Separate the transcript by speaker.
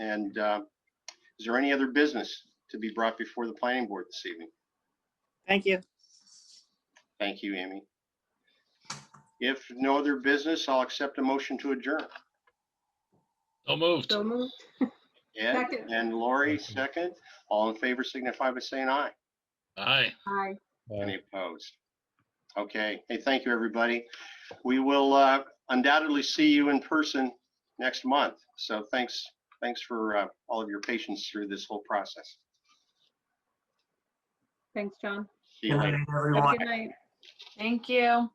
Speaker 1: And uh, is there any other business to be brought before the planning board this evening?
Speaker 2: Thank you.
Speaker 1: Thank you, Amy. If no other business, I'll accept a motion to adjourn.
Speaker 3: So moved.
Speaker 4: So moved.
Speaker 1: Ed
Speaker 4: Second.
Speaker 1: and Lori, second. All in favor signify by saying aye.
Speaker 3: Aye.
Speaker 4: Aye.
Speaker 1: Any opposed? Okay. Hey, thank you, everybody. We will uh, undoubtedly see you in person next month. So thanks, thanks for uh, all of your patience through this whole process.
Speaker 4: Thanks, John.
Speaker 1: See you later.
Speaker 4: Have a good night.
Speaker 5: Thank you.